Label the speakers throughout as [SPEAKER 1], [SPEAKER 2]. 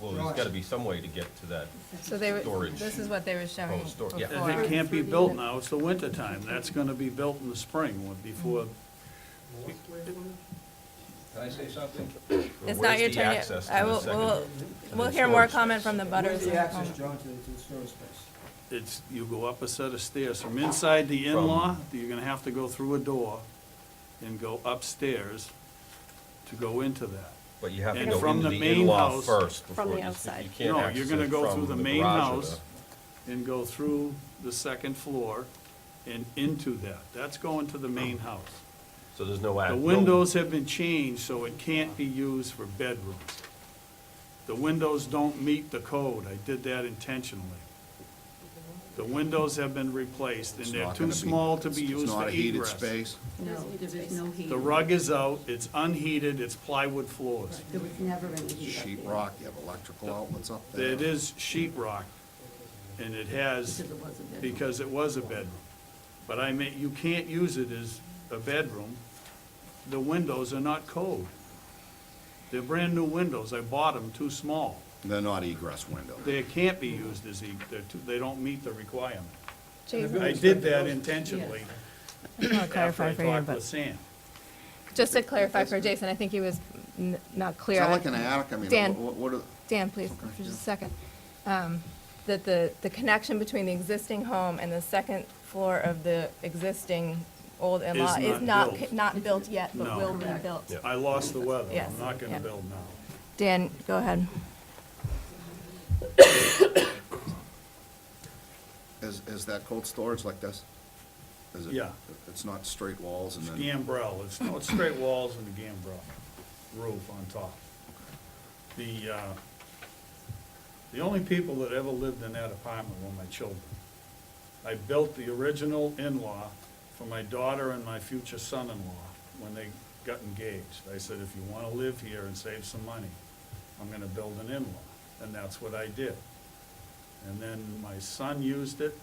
[SPEAKER 1] Well, there's gotta be some way to get to that.
[SPEAKER 2] So they were,
[SPEAKER 1] Storage.
[SPEAKER 2] this is what they were showing
[SPEAKER 1] Oh, store-
[SPEAKER 2] before.
[SPEAKER 1] yeah.
[SPEAKER 3] And it can't be built now, it's the winter time, that's gonna be built in the spring, when- before,
[SPEAKER 4] Can I say something?
[SPEAKER 2] It's
[SPEAKER 1] Where's
[SPEAKER 2] not your
[SPEAKER 1] the
[SPEAKER 2] turn yet.
[SPEAKER 1] access to
[SPEAKER 2] I
[SPEAKER 1] the
[SPEAKER 2] will,
[SPEAKER 1] second-
[SPEAKER 2] we'll,
[SPEAKER 1] the
[SPEAKER 2] we'll hear more
[SPEAKER 1] storage
[SPEAKER 2] comment
[SPEAKER 1] space?
[SPEAKER 2] from the butters.
[SPEAKER 5] Where's
[SPEAKER 2] in
[SPEAKER 5] the
[SPEAKER 2] a
[SPEAKER 5] access,
[SPEAKER 2] moment.
[SPEAKER 5] John, to the, to the storage space?
[SPEAKER 3] it's, you go up a set of stairs, from inside the
[SPEAKER 1] From-
[SPEAKER 3] in-law, you're gonna have to go through a door and go upstairs to go into that.
[SPEAKER 1] But you have to
[SPEAKER 3] And
[SPEAKER 1] go
[SPEAKER 3] from
[SPEAKER 1] into
[SPEAKER 3] the
[SPEAKER 1] the
[SPEAKER 3] main
[SPEAKER 1] in-law
[SPEAKER 3] house-
[SPEAKER 1] first
[SPEAKER 6] From
[SPEAKER 1] before
[SPEAKER 6] the
[SPEAKER 1] you,
[SPEAKER 6] outside.
[SPEAKER 1] you can't
[SPEAKER 3] No, you're
[SPEAKER 1] access
[SPEAKER 3] gonna
[SPEAKER 1] it
[SPEAKER 3] go
[SPEAKER 1] from
[SPEAKER 3] through the main
[SPEAKER 1] garage or
[SPEAKER 3] house and go through the second floor and into that, that's going to the main
[SPEAKER 1] Oh.
[SPEAKER 3] house.
[SPEAKER 1] So there's no. ac-
[SPEAKER 3] The
[SPEAKER 1] no-
[SPEAKER 3] windows have been changed, so it can't be used for bedrooms. The windows don't meet the code, I did that intentionally. The windows have been replaced, and
[SPEAKER 7] It's
[SPEAKER 3] they're
[SPEAKER 7] not
[SPEAKER 3] too
[SPEAKER 7] gonna be-
[SPEAKER 3] small to be
[SPEAKER 7] it's-
[SPEAKER 3] used
[SPEAKER 7] It's not
[SPEAKER 3] for
[SPEAKER 7] a heated
[SPEAKER 3] egress.
[SPEAKER 7] space.
[SPEAKER 8] No, there is no heat.
[SPEAKER 3] The rug is out, it's unheated, it's plywood floors.
[SPEAKER 8] There was never any
[SPEAKER 7] It's
[SPEAKER 8] heat. up
[SPEAKER 7] Sheet
[SPEAKER 8] there.
[SPEAKER 7] rock, you have electrical outlets up there.
[SPEAKER 3] It is sheet rock, and it has,
[SPEAKER 8] Because it wasn't there.
[SPEAKER 3] because it was a bedroom. But I mean, you can't use it as a bedroom. The windows are not code. They're brand-new windows, I bought them too small.
[SPEAKER 7] They're not egress windows.
[SPEAKER 3] They can't be used as, e- they're too, they don't meet the requirement.
[SPEAKER 2] Jason,
[SPEAKER 3] I did that intentionally
[SPEAKER 2] I just wanna
[SPEAKER 3] after
[SPEAKER 2] clarify
[SPEAKER 3] I
[SPEAKER 2] for you,
[SPEAKER 3] talked with
[SPEAKER 2] but,
[SPEAKER 3] Sam.
[SPEAKER 2] just to clarify for Jason, I think he was n- not
[SPEAKER 7] It's
[SPEAKER 2] clear.
[SPEAKER 7] not
[SPEAKER 2] on-
[SPEAKER 7] like an attic, I mean,
[SPEAKER 2] Dan.
[SPEAKER 7] what, what are,
[SPEAKER 2] Dan, please,
[SPEAKER 7] Okay,
[SPEAKER 2] for just a
[SPEAKER 7] yeah.
[SPEAKER 2] second. Um, That the, the connection between the existing home and the second floor of the existing old in-law
[SPEAKER 3] Is
[SPEAKER 2] is
[SPEAKER 3] not
[SPEAKER 2] not,
[SPEAKER 3] built.
[SPEAKER 2] ca- not built yet, but
[SPEAKER 3] No.
[SPEAKER 2] will be
[SPEAKER 8] Correct.
[SPEAKER 2] built.
[SPEAKER 1] Yeah.
[SPEAKER 3] I lost the weather,
[SPEAKER 2] Yes,
[SPEAKER 3] I'm not
[SPEAKER 2] yeah.
[SPEAKER 3] gonna build now.
[SPEAKER 2] Dan, go ahead.
[SPEAKER 7] is, is that cold storage like this? Is it-
[SPEAKER 3] Yeah.
[SPEAKER 7] It's not straight walls and
[SPEAKER 3] It's
[SPEAKER 7] then?
[SPEAKER 3] gambrel, it's, no, it's straight walls and a gambrel roof on top. The, uh, the only people that ever lived in that apartment were my children. I built the original in-law for my daughter and my future son-in-law when they got engaged. I said, if you wanna live here and save some money, I'm gonna build an in-law, and that's what I did. And then my son used it,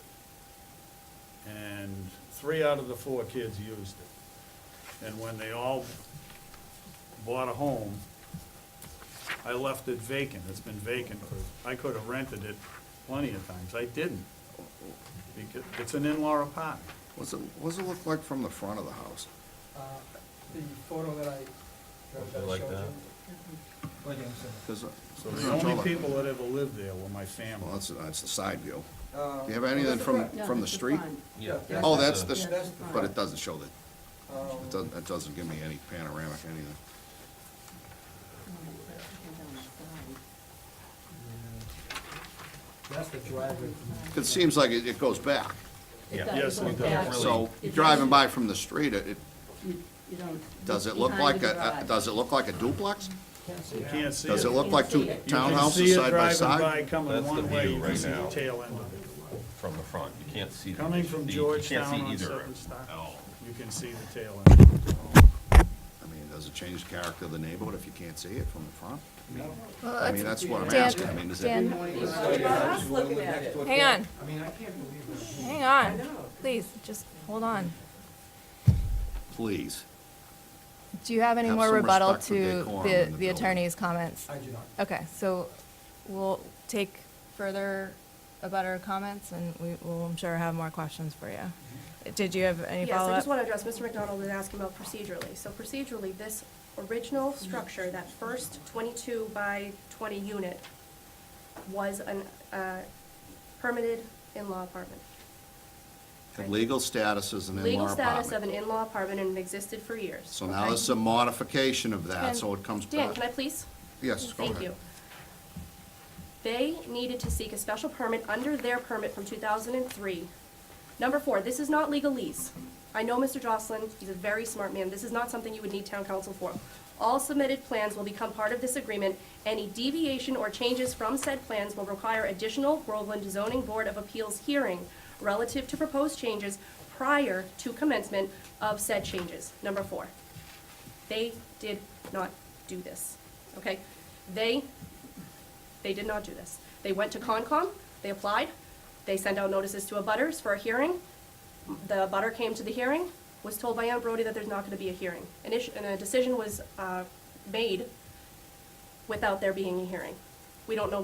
[SPEAKER 3] and three out of the four kids used it. And when they all bought a home, I left it vacant, it's been vacant for, I could have rented it plenty of times, I didn't. Because it's an in-law apartment.
[SPEAKER 7] What's it, what's it look like from the front of the house?
[SPEAKER 5] Uh, The photo that I, that I
[SPEAKER 1] Like
[SPEAKER 5] showed you.
[SPEAKER 1] that?
[SPEAKER 5] Right, yeah, so,
[SPEAKER 7] 'Cause, uh,
[SPEAKER 3] The only people that ever lived there were my
[SPEAKER 7] Well,
[SPEAKER 3] family.
[SPEAKER 7] that's, that's the side view.
[SPEAKER 5] uh,
[SPEAKER 7] Do you have anything
[SPEAKER 5] that's
[SPEAKER 7] from,
[SPEAKER 5] front.
[SPEAKER 8] No,
[SPEAKER 7] from the
[SPEAKER 8] that's
[SPEAKER 7] street?
[SPEAKER 8] front.
[SPEAKER 1] Yeah.
[SPEAKER 5] Yeah.
[SPEAKER 7] Oh, that's the,
[SPEAKER 5] Yeah, that's the
[SPEAKER 7] but
[SPEAKER 5] front.
[SPEAKER 7] it doesn't show the,
[SPEAKER 5] Um,
[SPEAKER 7] it doesn't, it doesn't give me any panoramic, anything.
[SPEAKER 5] Um, That's the driveway.
[SPEAKER 7] It seems like it, it goes back.
[SPEAKER 1] Yeah.
[SPEAKER 2] does.
[SPEAKER 3] Yes, it does.
[SPEAKER 7] So driving by from the street, it, it-
[SPEAKER 8] You- you don't-
[SPEAKER 7] does it look
[SPEAKER 8] behind
[SPEAKER 7] like
[SPEAKER 8] the
[SPEAKER 7] a, a-
[SPEAKER 8] garage.
[SPEAKER 7] does it look like a duplex?
[SPEAKER 5] Can't see
[SPEAKER 3] You
[SPEAKER 5] it.
[SPEAKER 3] can't see it.
[SPEAKER 7] Does it look like two
[SPEAKER 8] You can
[SPEAKER 7] townhouses side by
[SPEAKER 3] You can see it driving
[SPEAKER 7] side?
[SPEAKER 3] by coming
[SPEAKER 1] That's the
[SPEAKER 3] one way,
[SPEAKER 1] view
[SPEAKER 3] you
[SPEAKER 1] right
[SPEAKER 3] can see the
[SPEAKER 1] now.
[SPEAKER 3] tail end of it.
[SPEAKER 1] From the front, you can't see. the-
[SPEAKER 3] Coming from
[SPEAKER 1] the-
[SPEAKER 3] Georgetown
[SPEAKER 1] You
[SPEAKER 3] on
[SPEAKER 1] can't see either
[SPEAKER 3] Seven Stock,
[SPEAKER 1] at all.
[SPEAKER 3] you can see the tail end.
[SPEAKER 7] I mean, does it change the character of the neighborhood if you can't see it from the front?
[SPEAKER 2] Well,
[SPEAKER 7] I
[SPEAKER 2] let's-
[SPEAKER 7] mean, that's what I'm
[SPEAKER 2] Dan-
[SPEAKER 7] asking, I mean, is it,
[SPEAKER 2] Dan, hang on.
[SPEAKER 5] I mean, I can't believe it.
[SPEAKER 2] Hang on, please, just hold on.
[SPEAKER 7] please,
[SPEAKER 2] Do you have any
[SPEAKER 7] Have
[SPEAKER 2] more
[SPEAKER 7] some
[SPEAKER 2] rebuttal
[SPEAKER 7] respect for
[SPEAKER 2] to
[SPEAKER 7] decorum in
[SPEAKER 2] the,
[SPEAKER 7] the
[SPEAKER 2] the
[SPEAKER 7] building.
[SPEAKER 2] attorney's comments?
[SPEAKER 5] I do not.
[SPEAKER 2] Okay, so we'll take further about our comments and we will, I'm sure, have more questions for you. Did you have any
[SPEAKER 6] Yes, I just want
[SPEAKER 2] follow-up?
[SPEAKER 6] to address, Mr. McDonald was asking about procedurally. So procedurally, this original
[SPEAKER 2] Mm-hmm.
[SPEAKER 6] structure, that first 22 by 20 unit, was an uh, permitted in-law apartment.
[SPEAKER 7] the legal status is an
[SPEAKER 6] Legal
[SPEAKER 7] in-law
[SPEAKER 6] status of an
[SPEAKER 7] apartment.
[SPEAKER 6] in-law apartment and it existed for years.
[SPEAKER 7] So now
[SPEAKER 6] okay?
[SPEAKER 7] there's a modification of that,
[SPEAKER 6] Dan-
[SPEAKER 7] so it comes back.
[SPEAKER 6] Dan, can I please?
[SPEAKER 7] Yes, go
[SPEAKER 6] Thank
[SPEAKER 7] ahead.
[SPEAKER 6] you. They needed to seek a special permit under their permit from 2003. Number four, this is not legalese. I know Mr. Jocelyn, he's a very smart man, this is not something you would need town council for. All submitted plans will become part of this agreement. Any deviation or changes from said plans will require additional Groveland Zoning Board of Appeals hearing relative to proposed changes prior to commencement of said changes. Number four. They did not do this, okay? They, they did not do this. They went to Concom, they applied, they sent out notices to abutters for a hearing. The abutter came to the hearing, was told by Ann Brody that there's not gonna be a hearing. An issue, and a decision was, uh, made without there being a hearing. We don't know